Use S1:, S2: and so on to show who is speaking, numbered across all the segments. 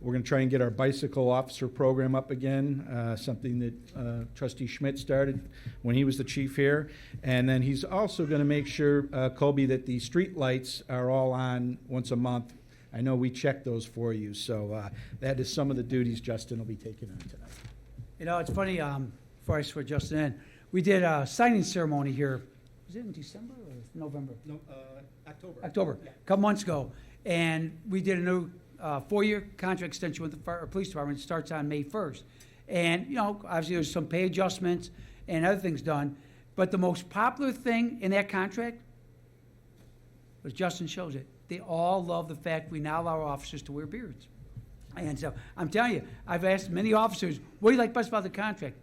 S1: We're going to try and get our bicycle officer program up again, uh, something that uh, trustee Schmidt started when he was the chief here. And then he's also going to make sure, uh, Colby, that the street lights are all on once a month. I know we checked those for you, so uh, that is some of the duties Justin will be taking on tonight.
S2: You know, it's funny, um, before I switch Justin in, we did a signing ceremony here, was it in December or November?
S1: No, uh, October.
S2: October, a couple months ago. And we did a new uh, four-year contract extension with the fire, or police department, It starts on May 1st. And, you know, obviously, there's some pay adjustments and other things done, but the most popular thing in that contract, as Justin shows it, they all love the fact we now allow our officers to wear beards. And so, I'm telling you, I've asked many officers, what do you like best about the contract?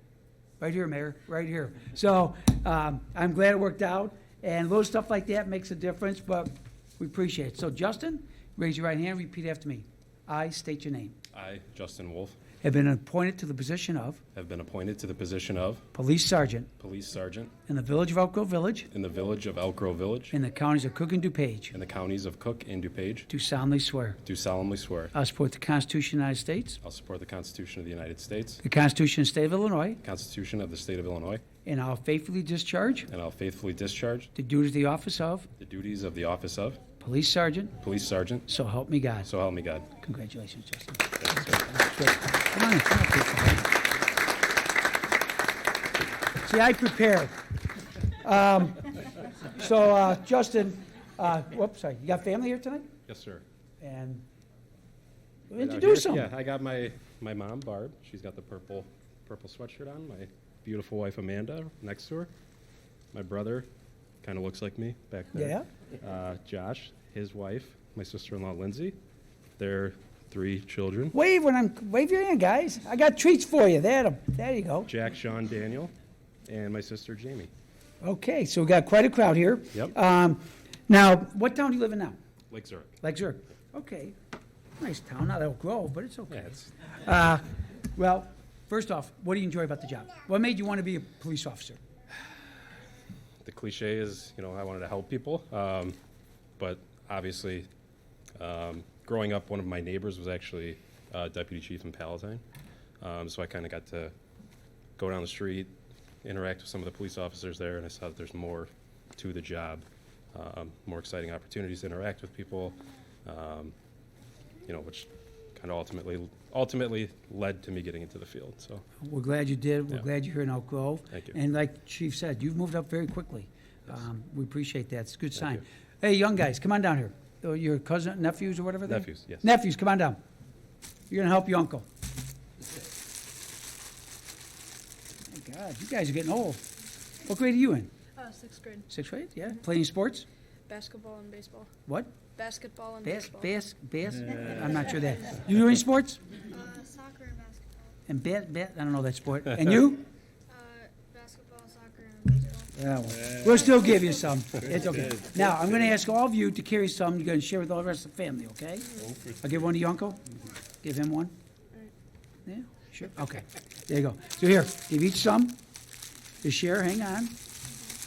S2: Right here, Mayor, right here. So um, I'm glad it worked out, and little stuff like that makes a difference, but we appreciate it. So Justin, raise your right hand, repeat after me. I state your name.
S3: I, Justin Wolf,
S2: Have been appointed to the position of
S3: have been appointed to the position of
S2: Police Sergeant
S3: Police Sergeant
S2: in the Village of Elk Grove Village
S3: in the village of Elk Grove Village
S2: in the counties of Cook and DuPage.
S3: in the counties of Cook and DuPage.
S2: Do solemnly swear.
S3: Do solemnly swear
S2: I support the Constitution of the United States,
S3: I'll support the Constitution of the United States,
S2: the Constitution of the State of Illinois,
S3: the Constitution of the State of Illinois,
S2: and I'll faithfully discharge
S3: and I'll faithfully discharge
S2: the duties of the office of
S3: the duties of the office of
S2: Police Sergeant,
S3: Police Sergeant.
S2: so help me God.
S3: So help me God.
S2: Congratulations, Justin.
S3: Thank you, sir.
S2: Come on, come up here. See, I prepare. Um, So, uh, Justin, uh, whoops, sorry, you got family here tonight?
S3: Yes, sir.
S2: And
S3: Right out
S2: introduce
S3: here.
S2: them.
S3: Yeah, I got my, my mom, Barb. She's got the purple, purple sweatshirt on. My beautiful wife, Amanda, next to her. My brother, kind of looks like me back there. Yeah. Uh, Josh, his wife, my sister-in-law, Lindsay. Their three children,
S2: Wave when I'm, wave your hand, guys. I got treats for you. There, 'em. there you go.
S3: Jack, Sean, Daniel, and my sister, Jamie.
S2: Okay, so we got quite a crowd here.
S3: Yep.
S2: Um, Now, what town do you live in now?
S3: Lake Zurich.
S2: Like Zurich? Okay, nice town, not Elk Grove, but it's okay.
S3: Yeah, it's,
S2: Uh, Well, first off, what do you enjoy about the job? What made you want to be a police officer?
S3: the cliche is, you know, I wanted to help people. Um, but obviously, um, growing up, one of my neighbors was actually uh, deputy chief in Palatine. Um, so I kind of got to go down the street, interact with some of the police officers there, and I saw that there's more to the job, um, more exciting opportunities to interact with people, um, you know, which kind of ultimately ultimately led to me getting into the field. So
S2: We're glad you did. We're
S3: Yeah.
S2: glad you're here in Elk Grove.
S3: Thank you.
S2: And like Chief said, you've moved up very quickly. Um, We appreciate that. It's a good sign. Hey, young guys, come on down here. Oh, Your cousin, nephews or whatever they?
S3: Nephews, yes.
S2: Nephews, come on down. You're gonna help your uncle. My God, you guys are getting old. What grade are you in?
S4: Uh, sixth grade.
S2: Sixth grade? Yeah? Playing sports?
S4: Basketball and baseball.
S2: What?
S4: Basketball and
S2: Bas,
S4: baseball.
S2: bas, bas? I'm not sure that. You do any sports?
S4: uh, soccer and basketball.
S2: And ba, ba, I don't know that sport. And you?
S4: Uh, basketball, soccer, and baseball.
S2: Yeah, well, We'll still give you some. It's okay. Now, I'm gonna ask all of you to carry some, you're gonna share with all the rest of the family, okay? Mm-hmm. I'll give one to your uncle, give him one. Yeah, sure, okay, there you go. So here, give each some, to share, hang on.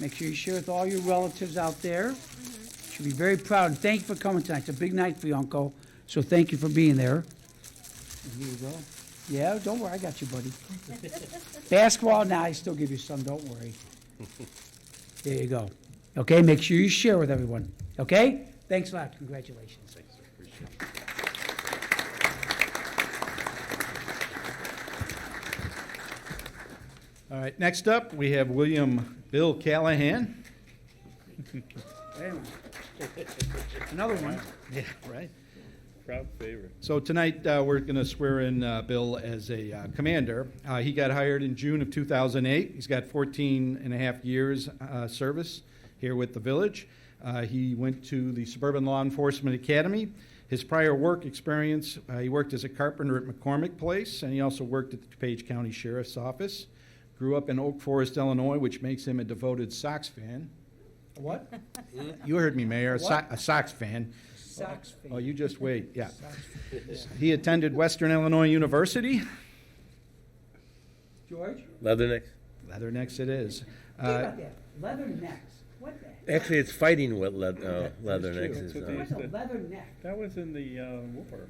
S2: Make sure you share with all your relatives out there. Should be very proud, and thank you for coming tonight, it's a big night for you, uncle, so thank you for being there. And Here you go. Yeah, don't worry, I got you, buddy. Basketball, now I still give you some, don't worry. There you go. Okay, make sure you share with everyone, okay? Thanks a lot, congratulations.
S1: All right, next up, we have William Bill Callahan.
S2: Wait a minute. Another one.
S1: Yeah, right.
S3: proud favorite.
S1: So tonight, uh, we're going to swear in uh, Bill as a uh, commander. Uh, He got hired in June of 2008. He's got 14 and a half years uh, service here with the village. Uh, He went to the Suburban Law Enforcement Academy. His prior work experience, uh, he worked as a carpenter at McCormick Place, and he also worked at the DuPage County Sheriff's Office. Grew up in Oak Forest, Illinois, which makes him a devoted Sox fan.
S2: What?
S1: You heard me, Mayor, a So-
S2: What?
S1: a Sox fan.
S2: Sox
S1: Oh,
S2: fan.
S1: you just wait, yeah.
S2: Sox
S1: He attended Western Illinois University.
S2: George?
S5: Leathernecks.
S1: Leathernecks it is.
S2: Think
S1: Uh,
S2: about that, leather necks. What the heck?
S5: Actually, it's fighting what leather, uh, leathernecks
S2: What's
S5: is.
S2: a leather neck?
S6: That was in the uh, war.